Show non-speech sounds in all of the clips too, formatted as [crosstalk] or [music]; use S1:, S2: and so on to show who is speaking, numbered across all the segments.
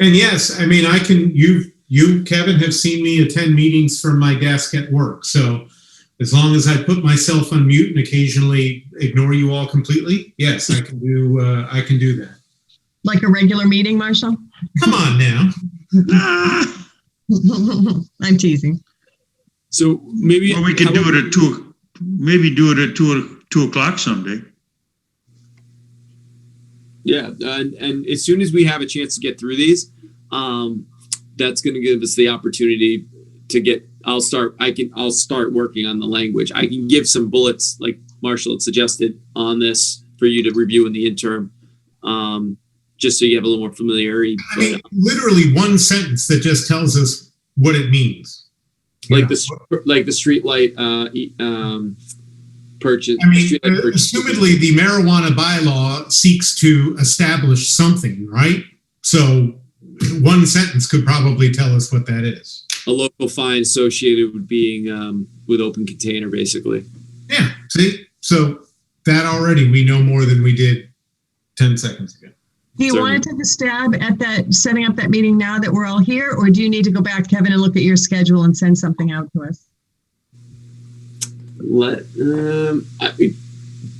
S1: And yes, I mean, I can, you, you, Kevin, have seen me attend meetings from my desk at work. So as long as I put myself on mute and occasionally ignore you all completely, yes, I can do, uh, I can do that.
S2: Like a regular meeting, Marshall? [laughs]
S1: Come on now.
S3: Ah,
S2: I'm teasing.
S4: So maybe.
S3: Well, we can
S4: how
S3: do
S4: about-
S3: it at two, maybe do it at two, two o'clock someday.
S4: Yeah, and, and as soon as we have a chance to get through these, um, that's going to give us the opportunity to get. I'll start. I can. I'll start working on the language. I can give some bullets, like Marshall had suggested, on this for you to review in the interim, um, just so you have a little more familiarity.
S1: I
S4: But,
S1: mean, literally one sentence that just tells us what it means. You
S4: like
S1: know?
S4: the str- like the streetlight uh, e- um, purchase.
S1: I mean,
S4: streetlight purchase-
S1: assumedly, the marijuana bylaw seeks to establish something, right? So one sentence could probably tell us what that is.
S4: a local fine associated with being um, with open container, basically.
S1: Yeah, see? So that already, we know more than we did 10 seconds ago.
S2: Do you
S4: Sorry.
S2: want to take a stab at that, setting up that meeting now that we're all here? Or do you need to go back, Kevin, and look at your schedule and send something out to us?
S4: Let um, I,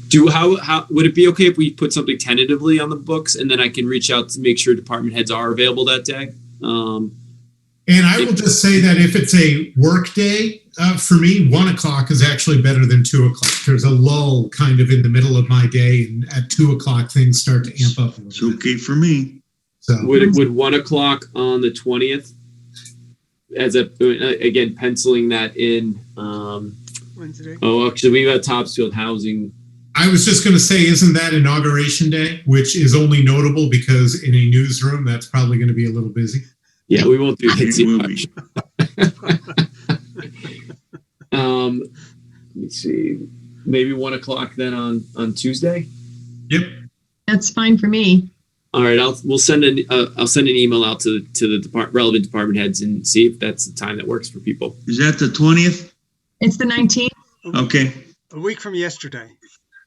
S4: do how how would it be okay if we put something tentatively on the books and then I can reach out to make sure department heads are available that day. Um,
S1: And I will just say that if it's a work day, uh, for me, one o'clock is actually better than two o'clock. There's a lull kind of in the middle of my day, and at two o'clock, things start to amp up a
S3: It's
S1: little bit.
S3: okay for me.
S1: So,
S4: would it would one o'clock on the twentieth? As a again penciling that in. Um,
S5: Wednesday.
S4: oh, actually, we have Topsfield Housing.
S1: I was just going to say, isn't that inauguration day, which is only notable because in a newsroom, that's probably going to be a little busy.
S4: Yeah, we won't do
S3: It will be.
S4: [laughs] Um, let me see. Maybe one o'clock then on on Tuesday.
S2: That's fine for me.
S4: All right, I'll we'll send an uh, I'll send an email out to to the depart, relevant department heads and see if that's the time that works for people.
S3: Is that the twentieth?
S2: It's the 19th.
S3: Okay,
S5: A week from yesterday.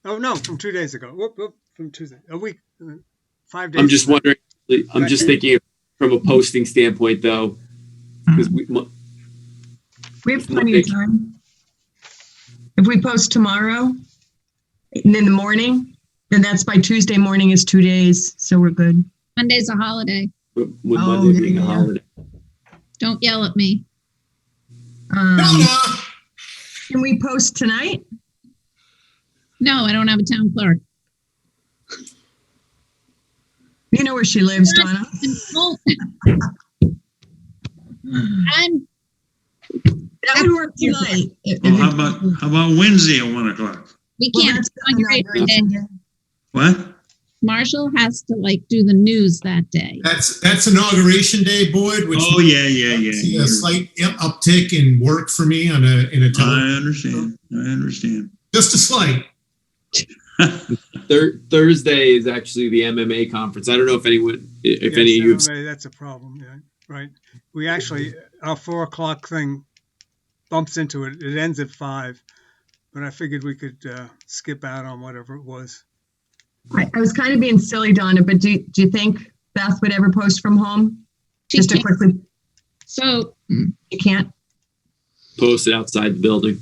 S5: Oh, no, from two days ago. Whoop, whoop, from Tuesday. A week, uh, five days.
S4: I'm just
S5: ago.
S4: wondering. I'm just thinking from a posting standpoint though, because we mo-
S2: We have plenty of time. If we post tomorrow and in the morning, then that's by Tuesday morning is two days. So we're good.
S6: Monday's a holiday.
S4: with with
S2: Oh,
S4: Monday
S2: yeah,
S4: being a
S2: yeah.
S4: holiday.
S6: Don't yell at me.
S2: Um,
S1: Donna!
S2: can we post tonight?
S6: No, I don't have a town clerk. [laughs]
S2: You know where she lives, Donna.
S6: I'm,
S2: That would work tonight.
S3: well, how about, how about Wednesday at one o'clock?
S6: we
S2: Well,
S6: can't.
S2: that's the
S6: inauguration
S2: inauguration day.
S3: What?
S6: Marshall has to like do the news that day.
S2: Uh,
S1: That's, that's inauguration day, Boyd, which
S3: Oh, yeah, yeah, yeah,
S1: see
S3: yeah.
S1: a slight uptick in work for me on a, in a time,
S3: I understand, I understand.
S1: just a slight.
S4: Thur- Thursday is actually the MMA conference. I don't know if anyone, if
S5: Yes,
S4: any of you, have,
S5: everybody, That's a problem, yeah, right. We actually, our four o'clock thing bumps into it. It ends at five. But I figured we could uh, skip out on whatever it was.
S2: I, I was kind of being silly, Donna, but do, do you think Beth would ever post from home?
S6: She
S2: Just to
S6: can't-
S2: quickly,
S6: So
S2: you can't?
S4: posted outside the building.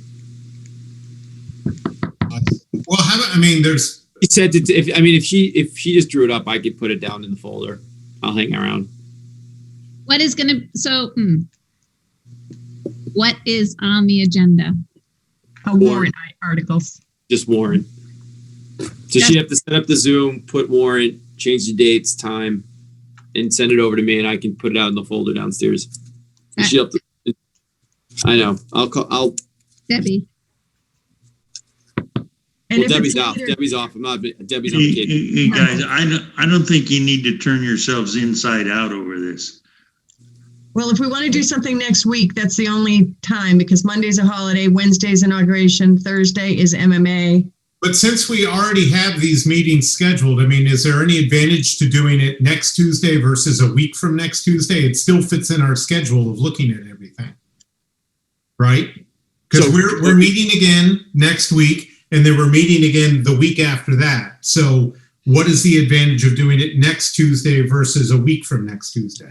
S1: Well, how about, I mean, there's,
S4: He said, to, if I mean, if she if she just drew it up, I could put it down in the folder. I'll hang around.
S6: what is gonna, so, hmm. What is on the agenda?
S2: A warrant articles.
S4: just Warren. So she have to set up the Zoom, put Warren, change the dates, time, and send it over to me, and I can put it out in the folder downstairs. And she'll have to- I know. I'll call. I'll.
S6: Debbie,
S2: And
S4: well,
S2: if it's
S4: Debbie's off.
S2: later-
S4: Debbie's off. I'm not. Debbie's on
S3: Hey,
S4: vacation.
S3: hey, hey, guys, I don't, I don't think you need to turn yourselves inside out over this.
S2: Well, if we want to do something next week, that's the only time because Monday's a holiday, Wednesday's inauguration, Thursday is MMA.
S1: But since we already have these meetings scheduled, I mean, is there any advantage to doing it next Tuesday versus a week from next Tuesday? It still fits in our schedule of looking at everything. Right? Because
S4: So-
S1: we're, we're meeting again next week and then we're meeting again the week after that. So what is the advantage of doing it next Tuesday versus a week from next Tuesday?